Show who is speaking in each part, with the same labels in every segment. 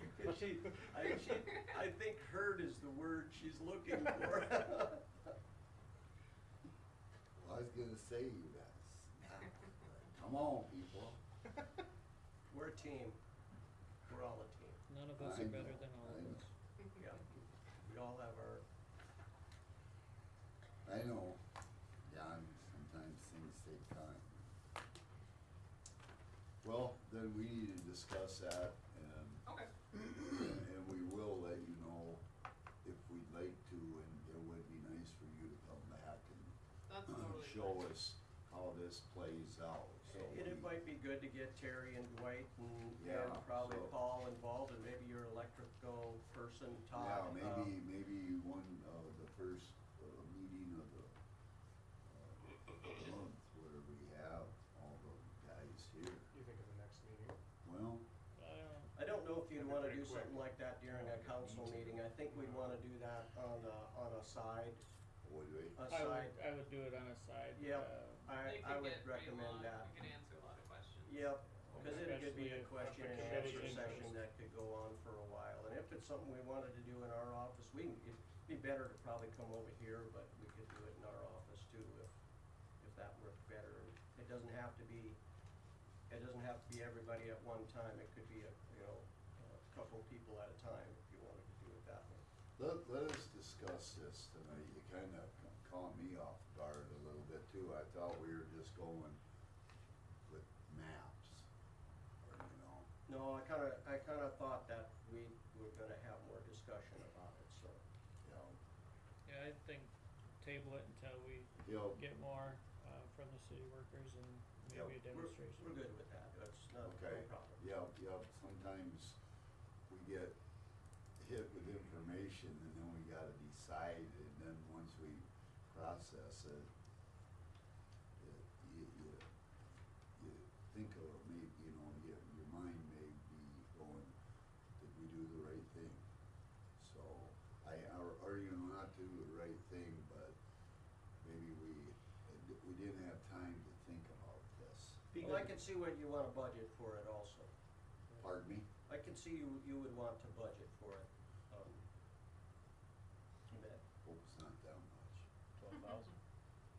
Speaker 1: think she, I, she, I think herd is the word she's looking for.
Speaker 2: I was gonna say you guys. Now, Come on, people.
Speaker 1: We're a team. We're all a team.
Speaker 3: None of us
Speaker 2: I
Speaker 3: are
Speaker 2: know,
Speaker 3: better than all
Speaker 2: I
Speaker 3: of us.
Speaker 1: Yeah. We all have our,
Speaker 2: I know, John, sometimes things take time. Well, then we need to discuss that and,
Speaker 1: okay,
Speaker 2: and we will let you know if we'd like to, and it would be nice for you to come back
Speaker 4: That's
Speaker 2: and
Speaker 4: totally.
Speaker 2: show us how this plays out, so.
Speaker 1: and it
Speaker 2: we-
Speaker 1: might be good to get Terry and Dwight and,
Speaker 2: Yeah,
Speaker 1: and probably
Speaker 2: so-
Speaker 1: Paul involved and maybe your electrical person,
Speaker 2: Yeah,
Speaker 1: Todd.
Speaker 2: maybe,
Speaker 1: um,
Speaker 2: maybe one of the first uh, meeting of the uh, month where we have all the guys here.
Speaker 5: You think of the next meeting?
Speaker 2: Well,
Speaker 3: Uh,
Speaker 1: I don't know if you'd
Speaker 5: That'd be
Speaker 1: wanna
Speaker 5: pretty
Speaker 1: do something
Speaker 5: quick.
Speaker 1: like that during a council meeting. I think we'd wanna do that on a, on a side,
Speaker 2: would we?
Speaker 1: a
Speaker 3: I
Speaker 1: side.
Speaker 3: would, I would do it on a side.
Speaker 1: Yep.
Speaker 3: uh,
Speaker 1: I,
Speaker 4: They could
Speaker 1: I would
Speaker 4: get pretty long.
Speaker 1: recommend that.
Speaker 4: We could answer a lot of questions.
Speaker 1: Yep, because it could be
Speaker 3: Especially
Speaker 1: a
Speaker 3: if-
Speaker 1: question
Speaker 3: if
Speaker 1: and
Speaker 3: the
Speaker 1: answer
Speaker 3: committee's
Speaker 1: session
Speaker 3: interest.
Speaker 1: that could go on for a while. And if it's something we wanted to do in our office, we, can- it'd be better to probably come over here, but we could do it in our office too if, if that worked better. It doesn't have to be, it doesn't have to be everybody at one time. It could be a, you know, a couple people at a time if you wanted to do it that way.
Speaker 2: Let, let us discuss this tonight. You kind of caught me off guard a little bit too. I thought we were just going with maps, or, you know.
Speaker 1: No, I kind of, I kind of thought that we were gonna have more discussion about it, so.
Speaker 2: you know,
Speaker 3: Yeah, I think table it until we
Speaker 2: He'll,
Speaker 3: get more, uh, from the city workers and maybe a
Speaker 1: We're,
Speaker 2: Yep.
Speaker 3: demonstration.
Speaker 1: we're good with that. That's not a
Speaker 2: Okay,
Speaker 1: problem.
Speaker 2: yep, yep, sometimes we get hit with information and then we gotta decide, and then once we process it, it- you, you, you think of, it, maybe, you know, your, your mind may be going, did we do the right thing? So, I, or, or you not do the right thing, but maybe we, we didn't have time to think about this.
Speaker 1: Well, I can see what you want to budget for it also.
Speaker 2: Pardon me?
Speaker 1: I can see you, you would want to budget for it. um, You bet,
Speaker 2: Hope it's not that much.
Speaker 1: twelve thousand.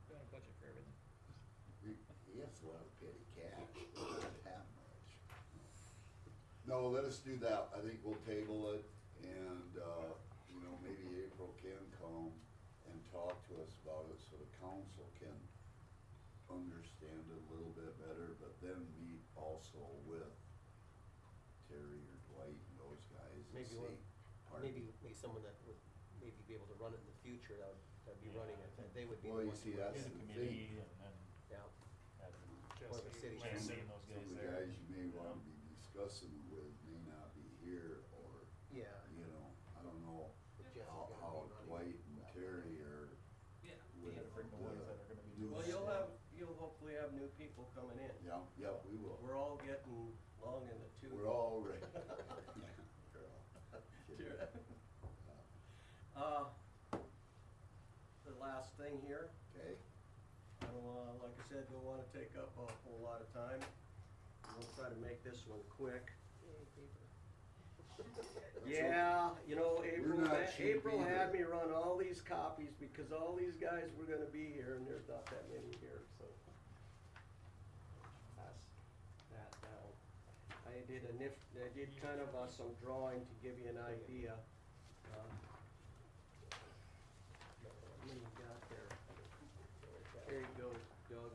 Speaker 3: Got a budget for everything.
Speaker 2: He has a lot of petty cash, but not that much. No, let us do that. I think we'll table it and, uh, you know, maybe April can come and talk to us about it so the council can understand it a little bit better, but then meet also with Terry or Dwight and those guys and
Speaker 6: Maybe
Speaker 2: see.
Speaker 6: one-
Speaker 2: Pardon?
Speaker 6: Maybe, maybe someone that would maybe be able to run it in the future, that would, that'd be
Speaker 7: Yeah,
Speaker 6: running it,
Speaker 7: I think-
Speaker 6: that they would be the
Speaker 2: Well, you
Speaker 6: ones
Speaker 2: see,
Speaker 6: who-
Speaker 2: that's
Speaker 7: Get a
Speaker 2: the
Speaker 7: committee
Speaker 2: thing.
Speaker 7: and then
Speaker 6: Yeah,
Speaker 7: have
Speaker 6: Or the city
Speaker 7: Jesse
Speaker 6: council.
Speaker 7: and those
Speaker 2: Some of
Speaker 7: guys
Speaker 2: the
Speaker 7: there.
Speaker 2: guys you may wanna be
Speaker 7: Yeah.
Speaker 2: discussing with may not be here or
Speaker 6: yeah.
Speaker 2: you know, I don't know
Speaker 6: But Jeff's
Speaker 2: how,
Speaker 6: gonna be
Speaker 2: how
Speaker 6: running
Speaker 2: Dwight
Speaker 6: that
Speaker 2: and
Speaker 6: one.
Speaker 2: Terry are
Speaker 4: Yeah.
Speaker 2: with
Speaker 7: Yeah, bring the ones that are
Speaker 2: the
Speaker 7: gonna be
Speaker 2: new.
Speaker 1: Well, you'll have, you'll hopefully have new people coming in.
Speaker 2: Yeah, yeah, we will.
Speaker 1: We're all getting long in the tooth.
Speaker 2: We're all ready. We're all-
Speaker 1: Sure. Uh, The last thing here,
Speaker 2: Okay,
Speaker 1: I don't, uh, like I said, don't want to take up a whole lot of time. We'll try to make this one quick. Yeah, you know, April,
Speaker 2: not
Speaker 1: had-
Speaker 2: cheap
Speaker 1: April had
Speaker 2: either.
Speaker 1: me run all these copies because all these guys were gonna be here and there's not that many here, so. That's, that, down. I did a nif, I did kind of uh, some drawing to give you an idea. uh, What do you got there? There you go, Doug.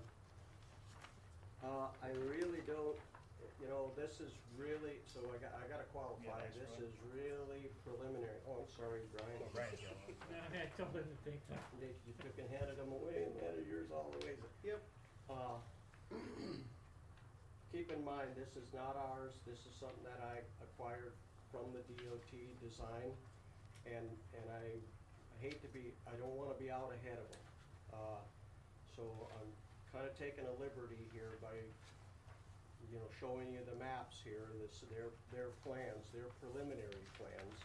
Speaker 1: Uh, I really don't, you know, this is really, so I got, I gotta
Speaker 7: Yeah,
Speaker 1: qualify,
Speaker 7: next
Speaker 1: this
Speaker 7: one.
Speaker 1: is really preliminary. Oh, I'm sorry, Brian.
Speaker 7: Brian's got
Speaker 3: No, I told him to take that.
Speaker 1: They, you took and handed them away and handed yours all the way. Yep. Uh, Keep in mind, this is not ours, this is something that I acquired from the DOT design. And, and I I hate to be, I don't wanna be out ahead of them. Uh, So I'm kinda taking a liberty here by, you know, showing you the maps here, this, their, their plans, their preliminary plans.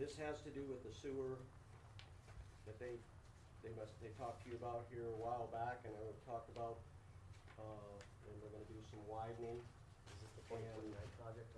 Speaker 1: This has to do with the sewer that they, they must, they talked to you about here a while back, and they were talked about, uh, and they're gonna do some widening.
Speaker 6: Is this the twenty twenty-nine project?